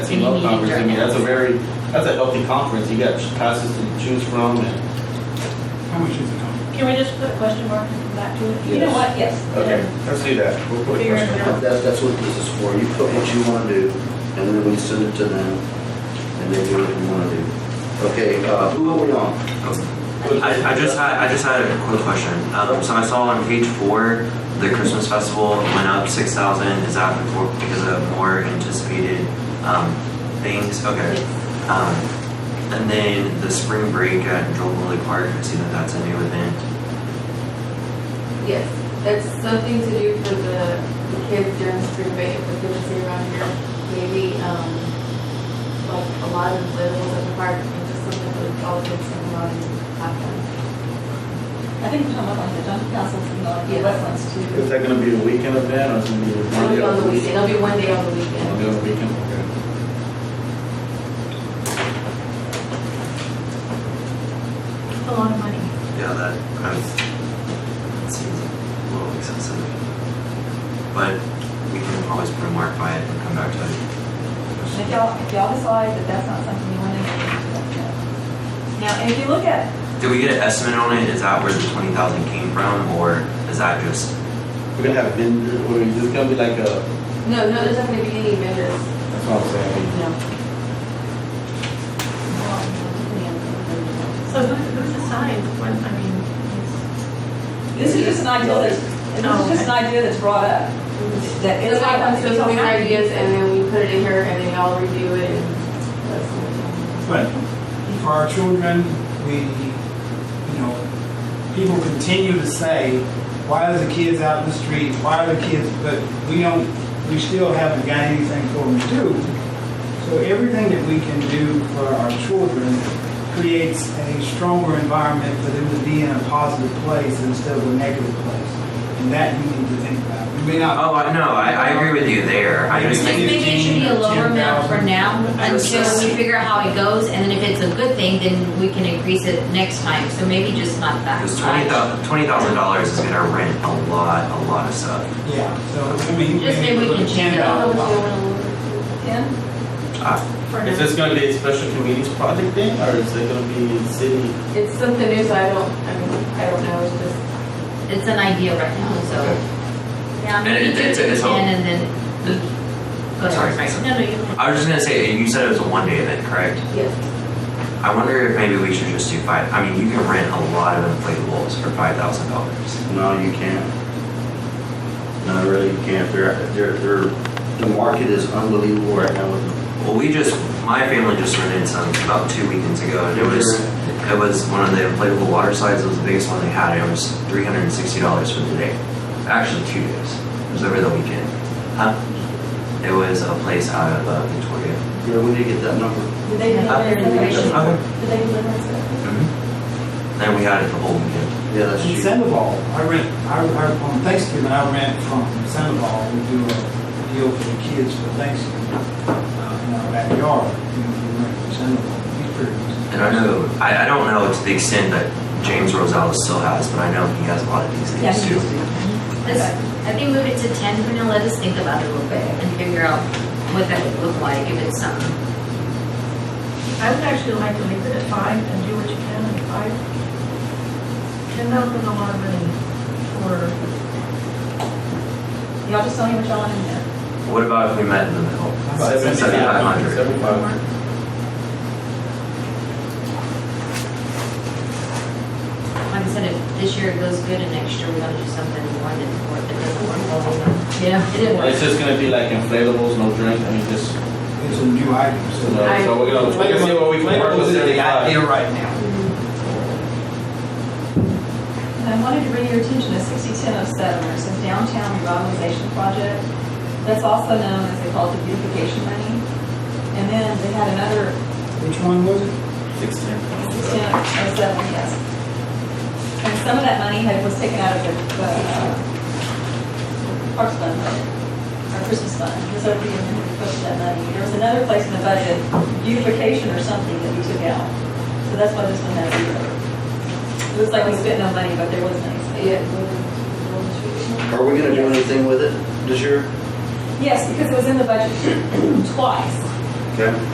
team up conference. I mean, that's a very that's a healthy conference. You got classes to choose from, and How much is it going? Can we just put a question mark and come back to it? You know what, yes. let's do that. We'll put a Figure it question. out. That's, that's what this is for. You put what you want to do, and then we send it to them, and they do what you want to do. Okay, uh, who are we on? I, I just had I just had a quick question. Um, so I saw on page four the Christmas festival went up six thousand. Is that before, because of more anticipated um, things? Okay. Um, and then the spring break at Joel Woolley Park. I see that that's a new event. Yes, that's something to do for the the kids during spring break, if the kids are around here. Maybe, um, like a lot of inflatables at the park, and just something with all the kids and a lot of happen. I think we're talking about like the Duncan Castles and the Yes. wetlands too. Is that going to be a weekend event or is it going to be It'll be on the one day? weekend, it'll be one day on the One day weekend. on the weekend. Okay. A lot of money. Yeah, that that seems a little excessive. But we can always put a mark by it and come back to And it. If y'all, if y'all decide that that's not something you want to do, that's no. Now, and if you look at, Did we get an estimate on it? Is that where the twenty thousand came from, or is that just We're gonna have vendors. Or is this gonna be like a? No, no, there's not gonna be any vendors, That's what I'm saying. no. So who, who's assigned? When, I mean, it's- this is just an idea that's, this is just an idea that's brought up. That It's is not like, I'm something supposed to we already did. ideas, and then we put it in here, and then y'all review it, and that's. But for our children, we, you know, people continue to say, why are the kids out in the street? Why are the kids, but we don't, we still haven't got anything for them to do. So everything that we can do for our children creates a stronger environment for them to be in a positive place instead of a negative place. And that you need to think about. You may not. Oh, I know. I, I agree with you there. I just Yeah. Just maybe it should be a lower amount for now until we figure out how it goes, and then if it's a good thing, then we can increase it next time, so maybe just not that because twenty high. thousand twenty thousand dollars is gonna rent a lot, a lot of stuff. Yeah, so I mean. Just maybe we can change it I up. don't know what y'all wanna look at. Ten? for- Is this gonna be a special communities project thing, or is it gonna be city? It's something new, so I don't, I mean, I don't know, it's just. It's an idea right now, so. Yeah, And maybe it- it's- do it it's all- again and then. we- go ahead. Sorry. Right. No, no, you. I was just gonna say you said it was a one day event, correct? Yes. I wonder if maybe we should just do five. I mean, you can rent a lot of inflatables for five thousand dollars. No, you can't. No, really, you can't. They're, they're, they're, the market is unbelievable right now with Well, we just my family just rented some about two weekends ago, and it was it was one of the inflatable water slides. It was the biggest one they had. and It was three hundred and sixty dollars for the day. Actually, two days. It was over the weekend. Huh? It was a place out of uh, Victoria. Yeah, we need to get that number. Did they deliver Uh, information? Okay. Did they deliver stuff? Mm-hmm. And we had it the whole weekend. Yeah, that's In cheap. Sandoval, I rent, I, I, on Thanksgiving, I rent from Sandoval, we do a deal for the kids for Thanksgiving, uh, in our backyard, you know, we rent from Sandoval, he's pretty good. And I know, I, I don't know to the extent that James Rosales still has, but I know he has a lot of these Yeah, things he too. used to. Let's- I think move it to ten for now, let us think about it a little bit and figure out what that would look like if it's something. I would actually like to leave it at five and do what you can at five. Ten thousand is a lot of money for, Y'all just tell me what y'all want to do. What about if we met in the middle? Seventy-five. Seventy-five hundred. Seventy-five. Like I said, if this year it goes good and next year we're gonna do something more than four, if it doesn't work, well, we're gonna- yeah, it didn't work. It's just gonna be like inflatables, no drink. I mean, just It's a new item, so so. we're gonna, we're gonna see what we can work with seventy-five. right now. And I wanted to bring your attention to 601007, which is Downtown Revitalization Project. That's also known as, they call it the beautification money. And then they had another Which one was it? Sixteen. 601007, yes. And some of that money had, was taken out of the, the uh, Parks Fund, budget, or Christmas Fund, because over the year, we posted that money. There was another place in the budget, beautification or something that we took out. So that's why this one has zero. It looks like we spent no money, but there was money spent. Yeah. Are we gonna do anything with it this year? Yes, because it was in the budget twice. Okay.